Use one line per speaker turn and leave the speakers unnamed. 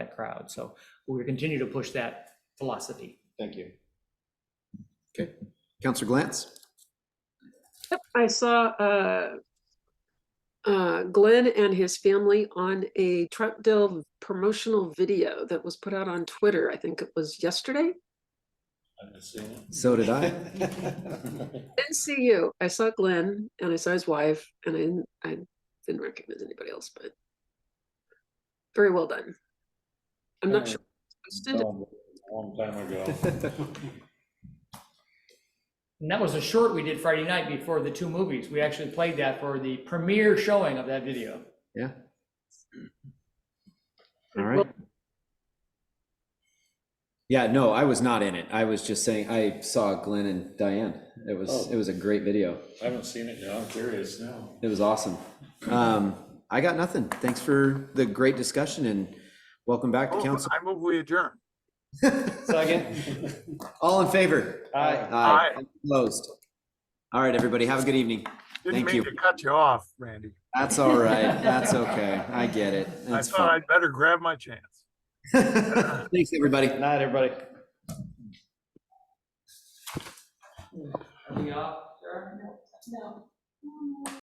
crowd. So we're continue to push that philosophy.
Thank you.
Counselor Glantz?
I saw uh, uh, Glenn and his family on a Troutdale promotional video that was put out on Twitter. I think it was yesterday.
So did I.
Didn't see you. I saw Glenn and I saw his wife, and I didn't, I didn't recognize anybody else, but very well done. I'm not sure. it's posted.
Long time ago.
And that was a short we did Friday night before the two movies. We actually played that for the premiere showing of that video.
Yeah. All right. Yeah, no, I was not in it. I was just saying, I saw Glenn and Diane. It was,
Oh.
it was a great video.
I haven't seen it yet. I'm curious now.
It was awesome. Um, I got nothing. Thanks for the great discussion and welcome back to
Move-
council.
Oh, I move we adjourn.
Second. All in favor?
Aye.
Aye.
Closed. All right, everybody, have a good evening.
Didn't
Thank
mean
you.
to cut you off, Randy.
That's all right. That's okay. I get it.
I
That's
thought
fine.
I'd better grab my chance.
Thanks, everybody.
Good night, everybody.
Are we off, Sarah?